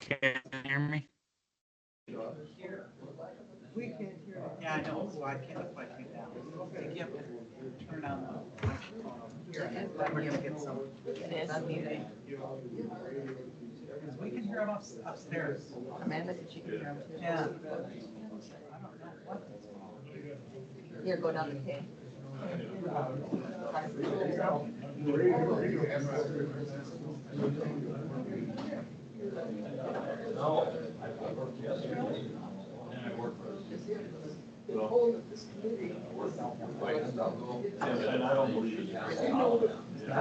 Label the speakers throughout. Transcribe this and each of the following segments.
Speaker 1: Can you hear me?
Speaker 2: We can't hear it.
Speaker 3: Yeah, I know, so I can't quite take that. You have to turn on the microphone over here and then we're gonna get some.
Speaker 4: It is muted.
Speaker 3: Because we can hear them ups- upstairs.
Speaker 4: Amanda, did you can hear him too?
Speaker 3: Yeah. I don't know what that's called.
Speaker 4: Here, go down the K.
Speaker 2: The whole of this committee.
Speaker 5: And I don't believe it.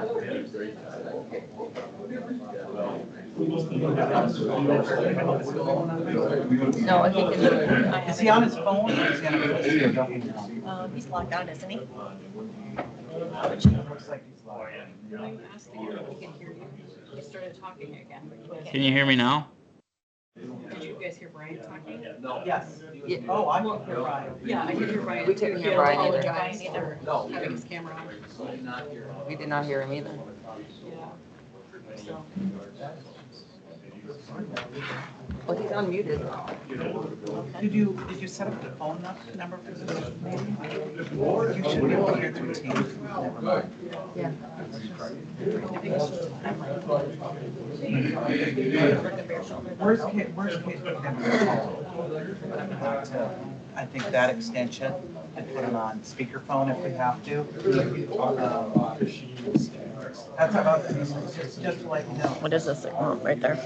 Speaker 4: No, I think in the. I have
Speaker 3: Is he
Speaker 4: it.
Speaker 3: on his phone or is he on his?
Speaker 4: Uh, he's locked out, isn't he?
Speaker 3: Looks like he's logged in.
Speaker 4: I asked him if he could hear you. He started talking again.
Speaker 1: Can you hear me now?
Speaker 4: Did you guys hear Brian talking?
Speaker 3: Yes.
Speaker 4: Yeah.
Speaker 3: Oh, I can hear Ryan.
Speaker 4: Yeah, I could hear Brian.
Speaker 6: We couldn't
Speaker 4: too.
Speaker 6: hear
Speaker 4: He
Speaker 6: Brian either.
Speaker 4: apologized for
Speaker 5: No.
Speaker 4: Having his camera on.
Speaker 6: We did not hear him either.
Speaker 4: Yeah. So,
Speaker 6: Well, he's unmuted.
Speaker 3: Did you, did you set up the phone nu- number for this meeting? You should be able to hear through Teams. Never mind.
Speaker 6: Yeah.
Speaker 4: I think it's just time right now.
Speaker 3: Where's Kate, where's Kate? I think that extension and put it on speakerphone if we have to. Um, That's about, just just to let you know.
Speaker 4: What is this oh, right there?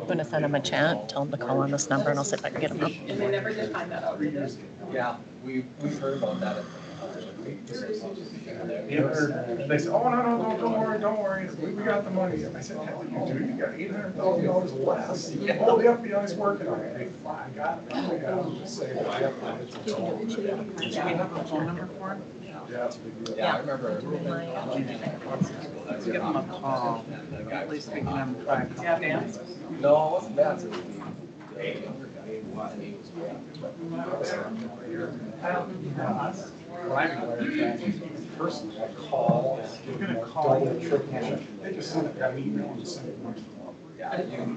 Speaker 4: I'm gonna send him a chat, tell him to call on this number, and I'll see if I can get him up.
Speaker 5: Yeah, we, we heard about that.
Speaker 7: They said, oh, no, no, no, don't worry, don't worry, we, we got the money. I said, hell, you do, you got eight hundred thousand dollars less. Oh, the FBI's working on it. Hey, fine, got it. I got it. Just say, well, I have my-
Speaker 3: Do we have a phone number for him?
Speaker 7: Yeah, it's a big deal.
Speaker 5: Yeah, I remember.
Speaker 3: Let's give him a call. At least we can have him try. Yeah, Dan.
Speaker 5: No, it wasn't bad.
Speaker 7: When I retired, personally, I call, give them more double, triple. They just send it, got an email and send it.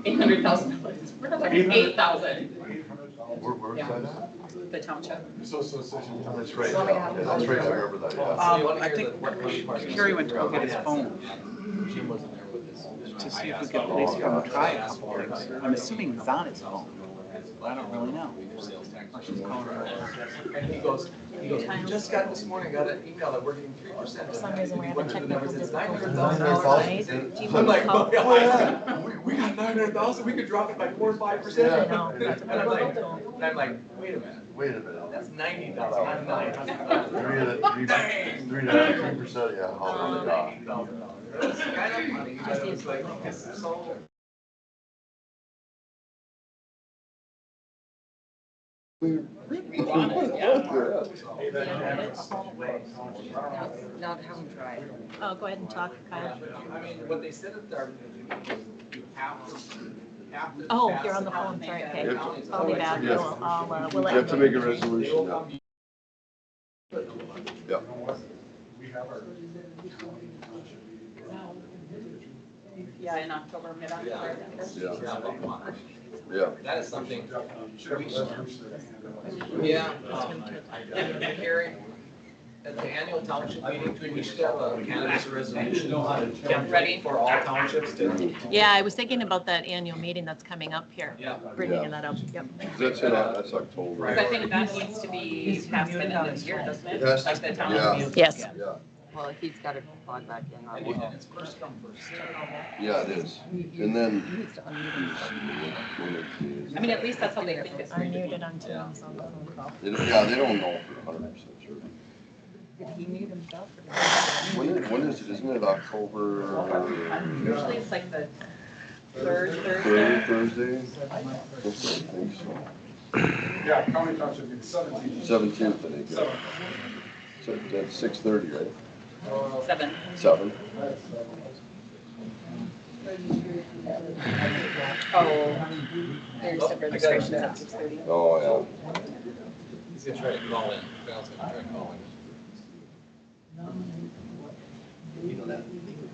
Speaker 8: Eight hundred thousand dollars, we're not talking eight thousand,
Speaker 7: Eight hundred dollars.
Speaker 9: Where, where's that at?
Speaker 8: the township.
Speaker 7: So, so, so.
Speaker 9: That's right, that's right, I remember that, yeah.
Speaker 3: Um, I think Kerry went to go get his phone
Speaker 5: Jim wasn't there with us.
Speaker 3: to see if we could at least have him try a couple things. I'm assuming he's on his phone. but I don't really know. She's calling him.
Speaker 5: And he goes, he goes, "We just got this morning, got an email that we're getting three percent.
Speaker 4: For some reason, we're having technical difficulties on our
Speaker 5: $900,000.
Speaker 4: side. Do you
Speaker 5: I'm
Speaker 4: want to
Speaker 5: like,
Speaker 4: call?
Speaker 5: "Oh, yeah, we, we got nine hundred thousand, we could drop it by four or five
Speaker 4: I
Speaker 5: percent.
Speaker 4: know, that's
Speaker 5: And
Speaker 4: what I'm
Speaker 5: I'm like,
Speaker 4: like.
Speaker 5: and I'm like, wait a minute,
Speaker 9: Wait a minute.
Speaker 5: that's ninety thousand, not nine hundred thousand.
Speaker 9: Three and a, three, three and a half percent, yeah, oh my God.
Speaker 5: Um, Kind of funny, but it was like, this is so.
Speaker 6: Now have him try it.
Speaker 4: Oh, go ahead and talk, Kyle.
Speaker 5: I mean, what they said at our, you have to, you have to.
Speaker 4: Oh,
Speaker 5: pass
Speaker 4: you're on
Speaker 5: it
Speaker 4: the
Speaker 5: out.
Speaker 4: phone, sorry, okay.
Speaker 5: That county is
Speaker 4: I'll be
Speaker 5: always-
Speaker 4: back,
Speaker 9: Yes.
Speaker 4: I'll, I'll, uh, we'll
Speaker 9: You
Speaker 4: let.
Speaker 9: have to make a
Speaker 5: They
Speaker 9: resolution
Speaker 5: will
Speaker 9: now.
Speaker 5: come
Speaker 9: Yeah.
Speaker 7: We have our.
Speaker 8: Yeah, in October, mid-October.
Speaker 9: Yeah,
Speaker 5: Yeah, well, come on.
Speaker 9: yeah.
Speaker 5: That is something,
Speaker 7: Should have a resolution that handles it.
Speaker 5: yeah. um, and Gary, at the annual township meeting, we should have a cannabis resolution. template
Speaker 8: Ready?
Speaker 5: For all townships to,
Speaker 4: Yeah, I was thinking about that annual meeting that's coming up here.
Speaker 5: yeah.
Speaker 4: We're bringing that up, yep.
Speaker 9: That's it, that's October.
Speaker 8: Because I think that needs to be passed in this year, doesn't it?
Speaker 9: It has to,
Speaker 8: Like the
Speaker 9: yeah.
Speaker 8: town meeting.
Speaker 4: Yes.
Speaker 9: Yeah,
Speaker 6: Well, he's got to log back in.
Speaker 5: And
Speaker 6: on-
Speaker 5: it's first come, first served.
Speaker 9: yeah, it is. And then. When it is.
Speaker 8: I mean, at least that's how they think it's
Speaker 4: I
Speaker 8: going to
Speaker 4: muted
Speaker 8: be.
Speaker 4: on Teams on the phone call.
Speaker 9: They don't- Yeah, they don't know for hundred percent sure.
Speaker 4: Did he mute himself?
Speaker 9: When is, when is it, isn't it October uh,
Speaker 8: Usually it's like the third Thursday.
Speaker 9: third, Thursday? I think so.
Speaker 7: Yeah, county township meeting seventeen.
Speaker 9: Seventeenth, I think, yeah. So that's six thirty, right?
Speaker 8: Seven.
Speaker 9: Seven?
Speaker 4: Oh, there's some registrations at six thirty.
Speaker 9: Oh,
Speaker 5: He's gonna try to call in, Val's gonna try to call in.